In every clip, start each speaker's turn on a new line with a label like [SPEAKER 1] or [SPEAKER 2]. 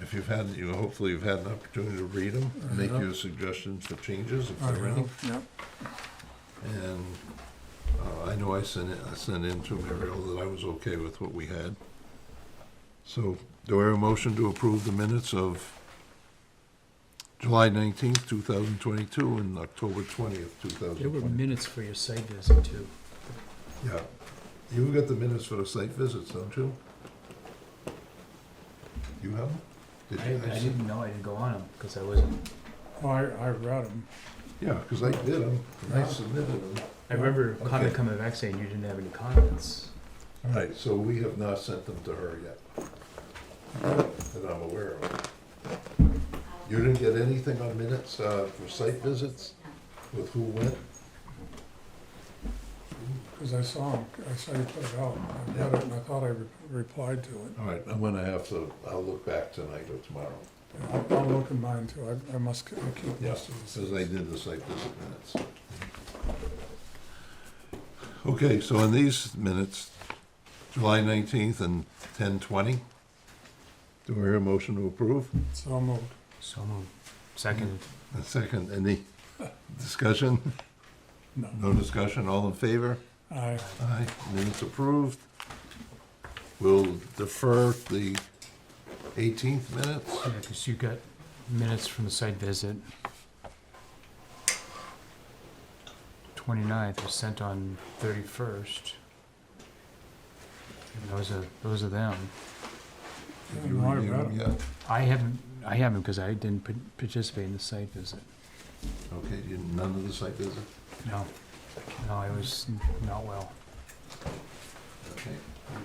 [SPEAKER 1] If you've had, you, hopefully you've had an opportunity to read them, make
[SPEAKER 2] have.
[SPEAKER 1] your suggestions for changes if
[SPEAKER 2] I
[SPEAKER 1] there are any.
[SPEAKER 2] will, Yep,
[SPEAKER 1] And uh, I know I sent it, I sent in to Muriel that I was okay with what we had. So do I have a motion to approve the minutes of July nineteenth, two thousand twenty-two and October twentieth, two
[SPEAKER 3] There
[SPEAKER 1] thousand
[SPEAKER 3] were
[SPEAKER 1] twenty?
[SPEAKER 3] minutes for your site visit too.
[SPEAKER 1] Yeah. You've got the minutes for the site visits, don't you? You have them?
[SPEAKER 3] I,
[SPEAKER 1] Did
[SPEAKER 3] I
[SPEAKER 1] you- I sent-
[SPEAKER 3] didn't know, I didn't go on them, because I wasn't,
[SPEAKER 2] Oh, I, I read them,
[SPEAKER 1] Yeah, because I did them, and I submitted them.
[SPEAKER 3] I remember a comment
[SPEAKER 1] Okay.
[SPEAKER 3] coming back saying you didn't have any comments.
[SPEAKER 1] All right, so we have not sent them to her yet, that I'm aware of. You didn't get anything on minutes uh, for site visits with who went?
[SPEAKER 2] because I saw them, I saw you put it out, I read it, and I thought I re- replied to it.
[SPEAKER 1] All right, I'm gonna have to, I'll look back tonight or tomorrow,
[SPEAKER 2] Yeah, I'll- I'll look in mine too, I, I must, I keep most
[SPEAKER 1] yes,
[SPEAKER 2] of this.
[SPEAKER 1] as I did the site visit minutes. Okay, so in these minutes, July 19th and 10:20, do we hear a motion to approve?
[SPEAKER 2] So moved.
[SPEAKER 3] So moved. Second.
[SPEAKER 1] A second, any discussion?
[SPEAKER 2] No.
[SPEAKER 1] No discussion, all in favor?
[SPEAKER 2] I,
[SPEAKER 1] Aye, minutes approved. We'll defer the eighteenth minutes.
[SPEAKER 3] Yeah, because you got minutes from the site visit. 29th was sent on 31st. And Those are, those are them.
[SPEAKER 1] Did you
[SPEAKER 2] No, I
[SPEAKER 1] review
[SPEAKER 2] read
[SPEAKER 1] them
[SPEAKER 2] them.
[SPEAKER 1] yet?
[SPEAKER 3] I haven't, I haven't because I didn't par- participate in the site visit.
[SPEAKER 1] Okay, you, none of the site visit?
[SPEAKER 3] No, no, I was not well.
[SPEAKER 1] Okay,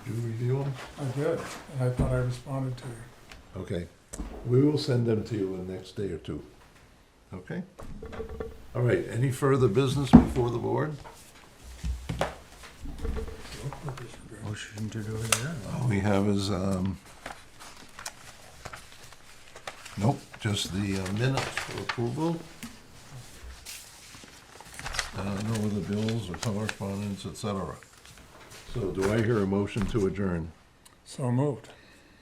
[SPEAKER 1] did you review them?
[SPEAKER 2] I did, and I thought I responded to you.
[SPEAKER 1] Okay, we will send them to you in the next day or two. Okay? All right, any further business before the board?
[SPEAKER 3] Motion to do it.
[SPEAKER 1] All we have is, um, nope, just the uh, minutes for approval. Uh, no other bills or correspondence, et cetera. So do I hear a motion to adjourn?
[SPEAKER 2] So moved.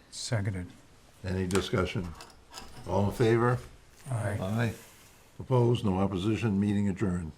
[SPEAKER 3] Seconded.
[SPEAKER 1] Any discussion? All in favor?
[SPEAKER 2] Aye.
[SPEAKER 1] Aye. Opposed? No opposition? Meeting adjourned.